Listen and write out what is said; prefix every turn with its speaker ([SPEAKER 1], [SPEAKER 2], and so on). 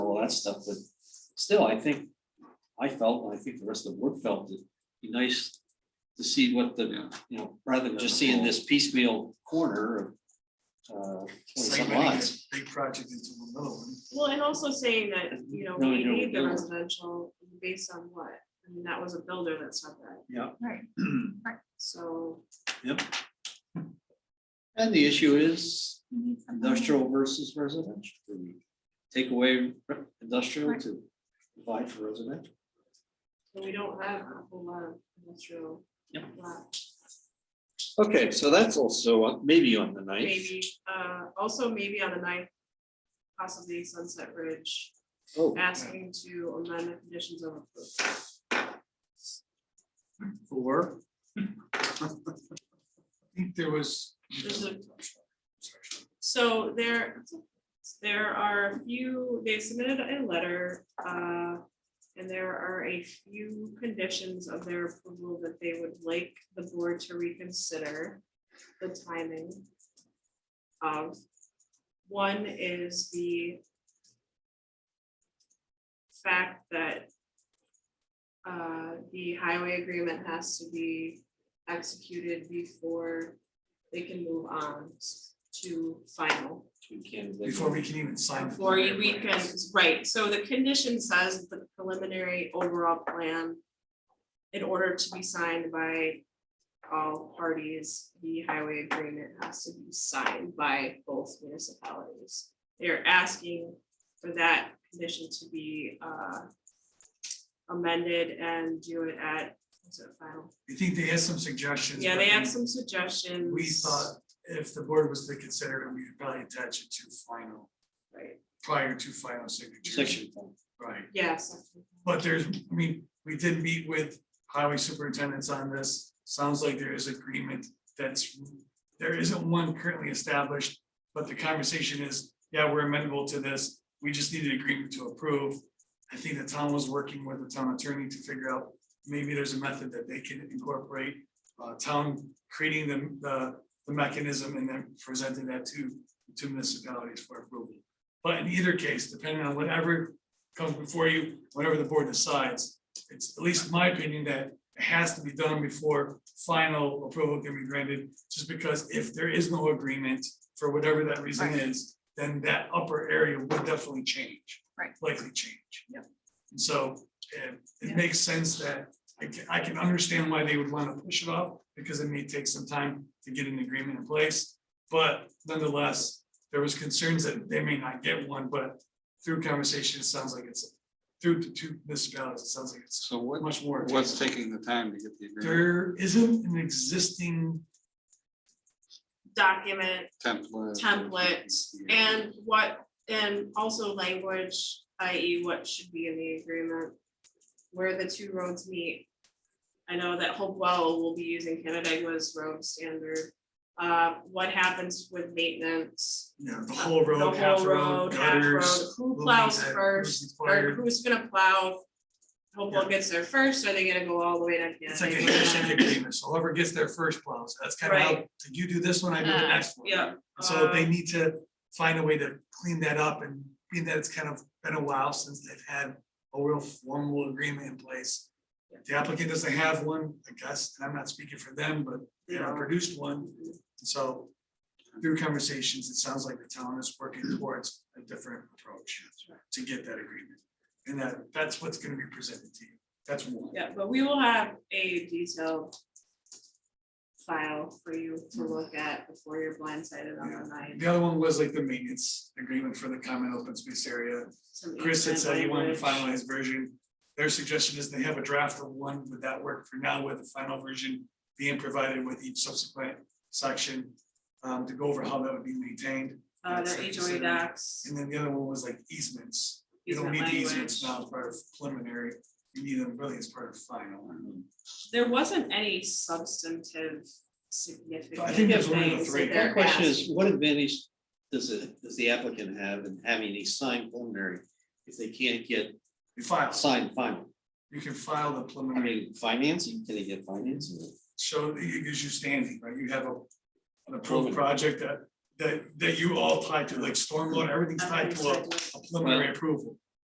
[SPEAKER 1] that stuff, but still, I think, I felt, and I think the rest of the board felt, it'd be nice to see what the, you know, rather than just seeing this piecemeal corner of uh,
[SPEAKER 2] Segmenting
[SPEAKER 1] twenty-some lots.
[SPEAKER 2] this Big project into the middle one.
[SPEAKER 3] Well, and also saying that, you know,
[SPEAKER 1] No,
[SPEAKER 3] we
[SPEAKER 1] no,
[SPEAKER 3] need the
[SPEAKER 1] no.
[SPEAKER 3] residential based on what? I mean, that was a builder that said that,
[SPEAKER 4] Right,
[SPEAKER 3] so.
[SPEAKER 1] And the issue is
[SPEAKER 4] we need something.
[SPEAKER 1] industrial versus residential. Do we Take away industrial to provide for residential.
[SPEAKER 3] so We don't have a whole lot of industrial.
[SPEAKER 1] Yep.
[SPEAKER 3] lot.
[SPEAKER 5] Okay, so that's also uh, maybe on the ninth.
[SPEAKER 3] Maybe, uh, also maybe on the ninth, possibly Sunset Ridge,
[SPEAKER 5] Oh,
[SPEAKER 3] asking to amend the conditions of approval.
[SPEAKER 1] Or.
[SPEAKER 2] I think there was.
[SPEAKER 3] There's a- So there, there are a few, they submitted a letter, uh, and there are a few conditions of their approval that they would like the board to reconsider the timing of. One is the fact that uh, the highway agreement has to be executed before they can move on to final.
[SPEAKER 2] Before we can even sign. the
[SPEAKER 3] Before you
[SPEAKER 2] preliminary
[SPEAKER 3] we can,
[SPEAKER 2] plans.
[SPEAKER 3] right, so the condition says the preliminary overall plan. In order to be signed by all parties, the highway agreement has to be signed by both municipalities. They're asking for that condition to be uh, amended and do it at, what's it, final?
[SPEAKER 2] I think they had some suggestions.
[SPEAKER 3] Yeah,
[SPEAKER 2] but
[SPEAKER 3] they
[SPEAKER 2] we-
[SPEAKER 3] have some suggestions.
[SPEAKER 2] We thought if the board was to consider it, we'd probably attach it to final,
[SPEAKER 3] Right,
[SPEAKER 2] prior to final signature.
[SPEAKER 1] Section. five.
[SPEAKER 2] Right,
[SPEAKER 3] yes.
[SPEAKER 2] but there's, I mean, we did meet with highway superintendents on this. Sounds like there is agreement that's, there isn't one currently established. But the conversation is, yeah, we're amenable to this. We just need an agreement to approve. I think the town was working with the town attorney to figure out, maybe there's a method that they can incorporate. Uh, town creating the, the, the mechanism and then presenting that to, to municipalities for approval. But in either case, depending on whatever comes before you, whatever the board decides, it's at least my opinion that it has to be done before final approval can be granted, just because if there is no agreement, for whatever that reason is, then that upper area would definitely change.
[SPEAKER 4] Right.
[SPEAKER 2] Likely change.
[SPEAKER 4] Yep.
[SPEAKER 2] And so eh,
[SPEAKER 4] Yeah.
[SPEAKER 2] it makes sense that I can, I can understand why they would want to push it off, because it may take some time to get an agreement in place. But nonetheless, there was concerns that they may not get one, but through conversation, it sounds like it's, through the two municipalities, it sounds like it's
[SPEAKER 6] So what,
[SPEAKER 2] much more.
[SPEAKER 6] what's taking the time to get the agreement
[SPEAKER 2] There isn't an existing,
[SPEAKER 3] Document
[SPEAKER 6] template?
[SPEAKER 3] template and what, and also language, i.e. what should be in the agreement. Where the two roads meet. I know that Hopewell will be using Canada's road standard. Uh, what happens with maintenance?
[SPEAKER 2] you know, the whole
[SPEAKER 3] The
[SPEAKER 2] road,
[SPEAKER 3] whole
[SPEAKER 2] half road,
[SPEAKER 3] road, half road,
[SPEAKER 2] gutters.
[SPEAKER 3] Who
[SPEAKER 2] who
[SPEAKER 3] plows
[SPEAKER 2] needs that,
[SPEAKER 3] first,
[SPEAKER 2] who's
[SPEAKER 3] or
[SPEAKER 2] required.
[SPEAKER 3] who's gonna plow? Hopewell
[SPEAKER 2] Yeah.
[SPEAKER 3] gets there first, are they gonna go all the way down?
[SPEAKER 2] It's like a
[SPEAKER 3] Canada?
[SPEAKER 2] handshake agreement, so whoever gets there first plows, that's kind of how,
[SPEAKER 3] Right.
[SPEAKER 2] did you do this one, I do the
[SPEAKER 3] Uh,
[SPEAKER 2] next one.
[SPEAKER 3] Yeah.
[SPEAKER 2] And So they
[SPEAKER 3] uh,
[SPEAKER 2] need to find a way to clean that up and being that it's kind of been a while since they've had a real formal agreement in place. The applicant doesn't have one, I guess, and I'm not speaking for them, but they haven't
[SPEAKER 3] Yeah.
[SPEAKER 2] produced one. So through conversations, it sounds like the town is working towards a different approach to get that agreement. And that, that's what's gonna be presented to you. That's one.
[SPEAKER 3] Yeah, but we will have a detailed file for you to
[SPEAKER 2] Mm-hmm.
[SPEAKER 3] look at before you're blindsided on the night.
[SPEAKER 2] The other one was like the maintenance agreement for the common open space area.
[SPEAKER 3] some
[SPEAKER 2] Chris had
[SPEAKER 3] easement
[SPEAKER 2] said he wanted the
[SPEAKER 3] language.
[SPEAKER 2] finalized version. Their suggestion is they have a draft of one, would that work for now with the final version being provided with each subsequent section? um, to go over how that would be maintained.
[SPEAKER 3] Uh, their
[SPEAKER 2] That's
[SPEAKER 3] HOA
[SPEAKER 2] considered-
[SPEAKER 3] docs.
[SPEAKER 2] And then the other one was like easements. You don't
[SPEAKER 3] easement
[SPEAKER 2] need the
[SPEAKER 3] language.
[SPEAKER 2] easements now as part of preliminary, you need them really as part of final.
[SPEAKER 3] There wasn't any substantive significant
[SPEAKER 2] I think there's only the
[SPEAKER 3] things
[SPEAKER 2] three.
[SPEAKER 3] that
[SPEAKER 2] My
[SPEAKER 1] My
[SPEAKER 3] they're
[SPEAKER 1] question
[SPEAKER 3] asking.
[SPEAKER 1] is, what advantage does it, does the applicant have in having a signed preliminary if they can't get
[SPEAKER 2] You file,
[SPEAKER 1] signed final?
[SPEAKER 2] you can file the
[SPEAKER 1] I
[SPEAKER 2] preliminary,
[SPEAKER 1] mean, financing, can they get financing?
[SPEAKER 2] show that you, gives you standing, right? You have a. An
[SPEAKER 1] Preliminary.
[SPEAKER 2] approved project that, that, that you all tied to, like stormwater, everything's tied to a- a preliminary approval.